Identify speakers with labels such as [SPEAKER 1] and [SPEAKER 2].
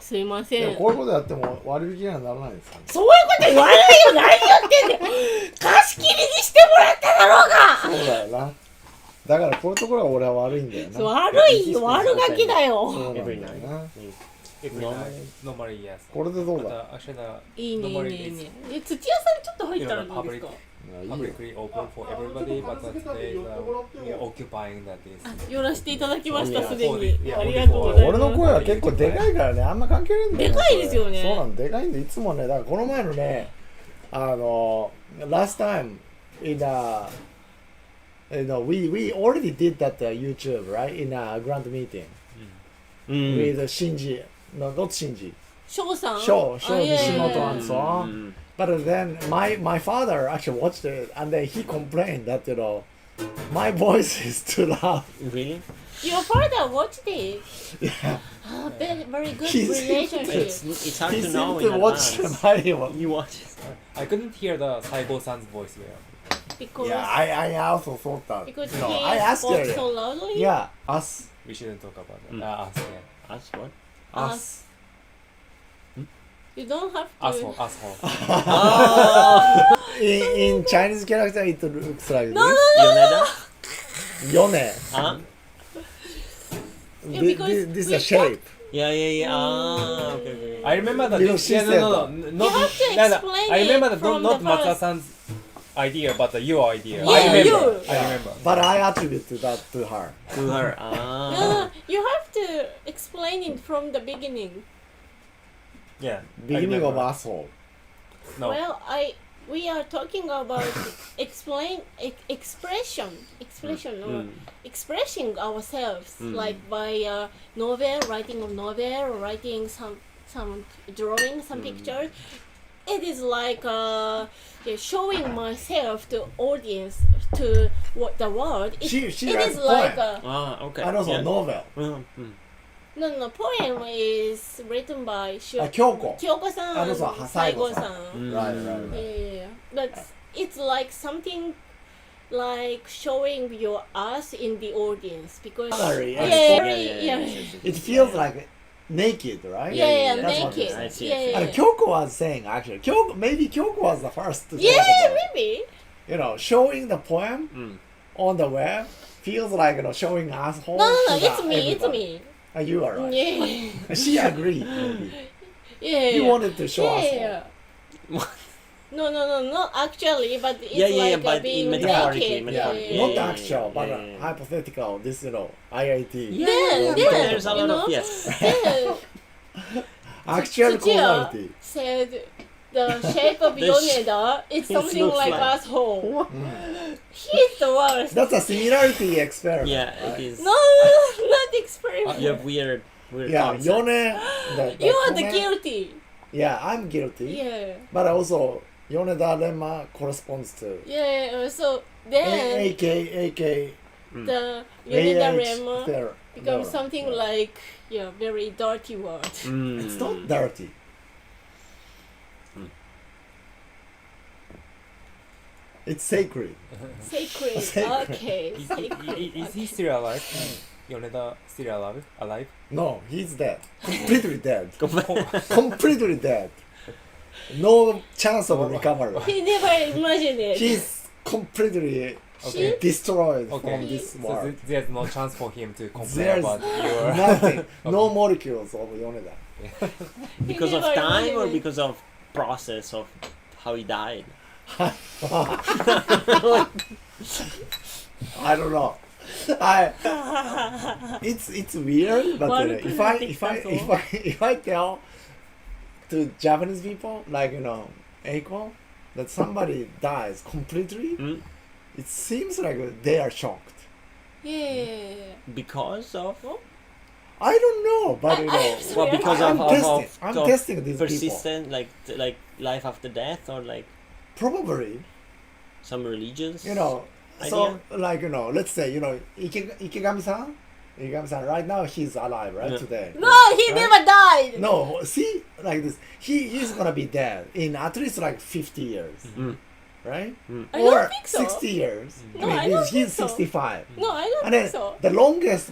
[SPEAKER 1] すいま
[SPEAKER 2] い
[SPEAKER 1] せ
[SPEAKER 2] や
[SPEAKER 1] ん
[SPEAKER 2] こういうことやっても割引にはならないですかね
[SPEAKER 1] そういうこと言わないよ何言ってんだ よ貸し切りにしてもらっただろうが
[SPEAKER 2] そうだよなだからこういうところは俺は悪いんだよな
[SPEAKER 1] 悪い悪ガキだよ
[SPEAKER 2] そうなんだ
[SPEAKER 3] every
[SPEAKER 2] よ
[SPEAKER 3] night.
[SPEAKER 2] な
[SPEAKER 3] Every
[SPEAKER 2] No.
[SPEAKER 3] night. Normally, yes.
[SPEAKER 2] これでどうだ
[SPEAKER 3] But, uh, actually, the
[SPEAKER 1] いいねいいね
[SPEAKER 3] normally
[SPEAKER 1] いい
[SPEAKER 3] it's
[SPEAKER 1] ねえ土屋さんちょっと入ったら
[SPEAKER 3] you
[SPEAKER 1] ど
[SPEAKER 3] know,
[SPEAKER 1] うです
[SPEAKER 3] public,
[SPEAKER 1] か
[SPEAKER 2] いやいいよ
[SPEAKER 3] publicly open for everybody, but uh, today uh, we are occupying that is.
[SPEAKER 1] あ寄らせていただきました
[SPEAKER 3] そ
[SPEAKER 1] す
[SPEAKER 3] うね
[SPEAKER 1] でに
[SPEAKER 3] いや
[SPEAKER 1] ありがとうございます
[SPEAKER 2] 俺の声は結構でかいからねあんま関係ないんだよ
[SPEAKER 1] でかいですよね
[SPEAKER 2] そうなのでかいんでいつもねだからこの前のねあの last time in a you know, we we already did that、uh, YouTube right in a grand meeting、
[SPEAKER 4] うん。
[SPEAKER 2] with Shinji no not Shinji
[SPEAKER 1] 翔さん
[SPEAKER 2] 翔
[SPEAKER 1] あ
[SPEAKER 2] 翔
[SPEAKER 1] いやいやいや
[SPEAKER 2] Nishimoto and so on、But
[SPEAKER 4] Mm.
[SPEAKER 2] then my my father actually watched it and then he complained that you know my voice is too loud.
[SPEAKER 4] Really?
[SPEAKER 1] Your father watched it
[SPEAKER 2] Yeah.
[SPEAKER 1] Ah, very very good
[SPEAKER 2] He's-
[SPEAKER 1] relationship
[SPEAKER 4] It's, it's hard
[SPEAKER 2] he
[SPEAKER 4] to know
[SPEAKER 2] seemed
[SPEAKER 4] in
[SPEAKER 2] to watch
[SPEAKER 4] advance.
[SPEAKER 2] my one.
[SPEAKER 4] You watch it.
[SPEAKER 3] I couldn't hear the Saigo san's voice well.
[SPEAKER 1] because
[SPEAKER 2] Yeah, I, I also thought that.
[SPEAKER 1] because
[SPEAKER 2] no,
[SPEAKER 1] he
[SPEAKER 2] I asked
[SPEAKER 1] spoke
[SPEAKER 2] her.
[SPEAKER 1] so loudly
[SPEAKER 2] Yeah, us
[SPEAKER 3] We shouldn't talk about that.
[SPEAKER 4] Mm.
[SPEAKER 3] Uh, us, yeah.
[SPEAKER 4] Us what?
[SPEAKER 2] us.
[SPEAKER 1] you don't have
[SPEAKER 3] Asshole,
[SPEAKER 1] to
[SPEAKER 3] asshole.
[SPEAKER 4] Ah!
[SPEAKER 2] In, in Chinese character, it looks like
[SPEAKER 1] no no
[SPEAKER 2] this.
[SPEAKER 4] Yoneda?
[SPEAKER 2] Yone.
[SPEAKER 4] Huh?
[SPEAKER 1] Yeah,
[SPEAKER 2] Thi-
[SPEAKER 1] because
[SPEAKER 2] thi- this is
[SPEAKER 1] we
[SPEAKER 2] a shape.
[SPEAKER 4] Yeah, yeah, yeah.
[SPEAKER 2] Mm.
[SPEAKER 4] Ah, okay, okay.
[SPEAKER 3] I remember the
[SPEAKER 2] You know, she
[SPEAKER 3] yeah, no,
[SPEAKER 2] said
[SPEAKER 3] no, no,
[SPEAKER 2] that.
[SPEAKER 3] n-
[SPEAKER 1] You
[SPEAKER 3] not,
[SPEAKER 1] have to
[SPEAKER 3] no, no,
[SPEAKER 1] explain
[SPEAKER 3] I remember
[SPEAKER 1] it
[SPEAKER 3] the,
[SPEAKER 1] from
[SPEAKER 3] not
[SPEAKER 1] the
[SPEAKER 3] Matsuda
[SPEAKER 1] first.
[SPEAKER 3] san's idea, but uh, your idea.
[SPEAKER 1] Yeah,
[SPEAKER 3] I remember.
[SPEAKER 1] you.
[SPEAKER 3] I remember.
[SPEAKER 2] But I attribute to that to her.
[SPEAKER 4] To
[SPEAKER 1] No,
[SPEAKER 4] her. Ah.
[SPEAKER 1] no, you have to explain it from the beginning.
[SPEAKER 3] Yeah. I
[SPEAKER 2] Beginning of
[SPEAKER 3] remember.
[SPEAKER 2] asshole.
[SPEAKER 3] No.
[SPEAKER 1] Well, I we are talking about explain e- expression, expression or
[SPEAKER 4] Mm.
[SPEAKER 1] expressing ourselves,
[SPEAKER 4] Mm.
[SPEAKER 1] like by uh, novel, writing a novel, or writing some some drawing, some pictures. It is like uh, yeah, showing myself to audience to what the world. It,
[SPEAKER 2] She- she
[SPEAKER 1] it
[SPEAKER 2] writes
[SPEAKER 1] is
[SPEAKER 2] a
[SPEAKER 1] like
[SPEAKER 2] poem.
[SPEAKER 1] a,
[SPEAKER 4] Ah, okay.
[SPEAKER 2] And also
[SPEAKER 4] yeah.
[SPEAKER 2] novel.
[SPEAKER 4] Mm, mm.
[SPEAKER 1] no no poem is written by Shu-
[SPEAKER 2] Uh, Kyoko.
[SPEAKER 1] 京子さん、
[SPEAKER 2] あのさ
[SPEAKER 1] 西郷さん
[SPEAKER 2] 西郷さん。
[SPEAKER 4] Mm.
[SPEAKER 2] Right, right, right.
[SPEAKER 1] ええ but it's like something like showing your us in the audience because
[SPEAKER 4] Oh,
[SPEAKER 2] Gallery,
[SPEAKER 1] yeah,
[SPEAKER 2] yeah.
[SPEAKER 1] yeah, yeah,
[SPEAKER 2] It feels like naked, right?
[SPEAKER 1] yeah, yeah,
[SPEAKER 2] That's what
[SPEAKER 1] naked,
[SPEAKER 2] it is.
[SPEAKER 4] I see, I
[SPEAKER 1] yeah,
[SPEAKER 4] see.
[SPEAKER 1] yeah,
[SPEAKER 2] And Kyoko was saying actually, Kyoko maybe Kyoko was the first to
[SPEAKER 1] yeah,
[SPEAKER 2] talk about,
[SPEAKER 1] maybe,
[SPEAKER 2] you know, showing the poem
[SPEAKER 4] Mm.
[SPEAKER 2] on the web feels like you know showing
[SPEAKER 4] Oh,
[SPEAKER 2] asshole.
[SPEAKER 1] no, no, no,
[SPEAKER 2] to the
[SPEAKER 1] it's me, it's
[SPEAKER 2] everybody.
[SPEAKER 1] me,
[SPEAKER 2] And you are right.
[SPEAKER 1] yeah,
[SPEAKER 2] And She agreed. Maybe.
[SPEAKER 1] yeah,
[SPEAKER 2] You
[SPEAKER 1] yeah,
[SPEAKER 2] wanted to show
[SPEAKER 1] yeah,
[SPEAKER 2] asshole.
[SPEAKER 1] yeah.
[SPEAKER 4] What?
[SPEAKER 1] No, no, no, not actually, but it's
[SPEAKER 4] Yeah, yeah, yeah,
[SPEAKER 1] like uh,
[SPEAKER 4] but in
[SPEAKER 1] being naked. Yeah,
[SPEAKER 2] Yeah,
[SPEAKER 4] metaphorically, metaphorically.
[SPEAKER 1] yeah, yeah.
[SPEAKER 2] not
[SPEAKER 4] yeah,
[SPEAKER 2] actual,
[SPEAKER 4] yeah,
[SPEAKER 2] but
[SPEAKER 4] yeah,
[SPEAKER 2] uh,
[SPEAKER 4] yeah.
[SPEAKER 2] hypothetical. This you know, IIT.
[SPEAKER 4] Yeah,
[SPEAKER 1] Then,
[SPEAKER 4] yeah,
[SPEAKER 1] then,
[SPEAKER 4] there's a
[SPEAKER 1] you
[SPEAKER 4] lot
[SPEAKER 1] know?
[SPEAKER 4] of yes.
[SPEAKER 1] Then
[SPEAKER 2] Actual
[SPEAKER 1] Tsuchiya
[SPEAKER 2] quality.
[SPEAKER 1] said the shape of
[SPEAKER 4] The sh-
[SPEAKER 1] Yoneda is
[SPEAKER 4] it
[SPEAKER 1] something
[SPEAKER 4] looks
[SPEAKER 1] like,
[SPEAKER 4] like-
[SPEAKER 1] asshole. He's the worst.
[SPEAKER 2] Hmm. That's a similarity experiment.
[SPEAKER 4] Yeah, it is. Uh,
[SPEAKER 1] No, not experiment.
[SPEAKER 4] You have weird, weird.
[SPEAKER 2] Yeah,
[SPEAKER 4] concept.
[SPEAKER 2] Yone. The, the
[SPEAKER 1] you are the
[SPEAKER 2] comment-
[SPEAKER 1] guilty.
[SPEAKER 2] Yeah, I'm guilty.
[SPEAKER 1] Yeah,
[SPEAKER 2] But also, Yoneda Lemma corresponds to
[SPEAKER 1] yeah. uh, So
[SPEAKER 2] A-
[SPEAKER 1] then
[SPEAKER 2] AKA AKA
[SPEAKER 1] the Yoneda
[SPEAKER 2] AH
[SPEAKER 1] Rema
[SPEAKER 2] there-
[SPEAKER 1] becomes
[SPEAKER 2] there.
[SPEAKER 1] something
[SPEAKER 2] Yeah.
[SPEAKER 1] like yeah, very dirty word.
[SPEAKER 4] Mm.
[SPEAKER 2] It's not dirty.
[SPEAKER 3] Hmm.
[SPEAKER 2] It's sacred.
[SPEAKER 1] Sacred.
[SPEAKER 2] Sacred.
[SPEAKER 1] Okay.
[SPEAKER 3] Is,
[SPEAKER 1] Sacred.
[SPEAKER 3] is, is he still alive? Mm. Yoneda still alive? Alive?
[SPEAKER 2] No, he's dead. Completely dead.
[SPEAKER 3] Oh,
[SPEAKER 2] Completely dead. No chance of
[SPEAKER 3] Oh.
[SPEAKER 2] recovery.
[SPEAKER 1] He never imagined it.
[SPEAKER 2] He's completely
[SPEAKER 3] Okay.
[SPEAKER 2] destroyed
[SPEAKER 3] Okay.
[SPEAKER 2] from this
[SPEAKER 3] so
[SPEAKER 2] world.
[SPEAKER 3] th- there's no chance for him to complain
[SPEAKER 2] There's
[SPEAKER 3] about your.
[SPEAKER 2] Nothing. No molecules of Yoneda.
[SPEAKER 1] He
[SPEAKER 4] Because of
[SPEAKER 1] never
[SPEAKER 4] time or
[SPEAKER 1] imagined it.
[SPEAKER 4] because of process of how he died?
[SPEAKER 2] I don't know. I it's it's weird, but uh, if I if I if I if I tell to Japanese people like you know Eiko that somebody dies completely,
[SPEAKER 4] Mm.
[SPEAKER 2] it seems like they are shocked.
[SPEAKER 1] Yeah.
[SPEAKER 4] Because of
[SPEAKER 2] I don't know, but you know,
[SPEAKER 4] well, because
[SPEAKER 2] I'm
[SPEAKER 4] of, of,
[SPEAKER 2] testing.
[SPEAKER 4] of,
[SPEAKER 2] I'm
[SPEAKER 4] of
[SPEAKER 2] testing these people.
[SPEAKER 4] persistent, like t- like life after death, or like
[SPEAKER 2] Probably,
[SPEAKER 4] some religions.
[SPEAKER 2] you know. So
[SPEAKER 4] Idea.
[SPEAKER 2] like you know, let's say you know Ike, Ikegami-san, Ikegami-san. Right now he's alive, right
[SPEAKER 4] Yeah.
[SPEAKER 2] today.
[SPEAKER 1] No, he
[SPEAKER 2] Right?
[SPEAKER 1] never died.
[SPEAKER 2] No, see, like this, he he's gonna be dead in at least like fifty years,
[SPEAKER 4] Mm.
[SPEAKER 2] right?
[SPEAKER 4] Mm.
[SPEAKER 1] I
[SPEAKER 2] or
[SPEAKER 1] don't think so.
[SPEAKER 2] sixty years.
[SPEAKER 1] No,
[SPEAKER 2] I mean,
[SPEAKER 1] I don't
[SPEAKER 2] he's, he's
[SPEAKER 1] think so.
[SPEAKER 2] sixty-five,
[SPEAKER 1] No, I don't
[SPEAKER 2] and then
[SPEAKER 1] think so.
[SPEAKER 2] the longest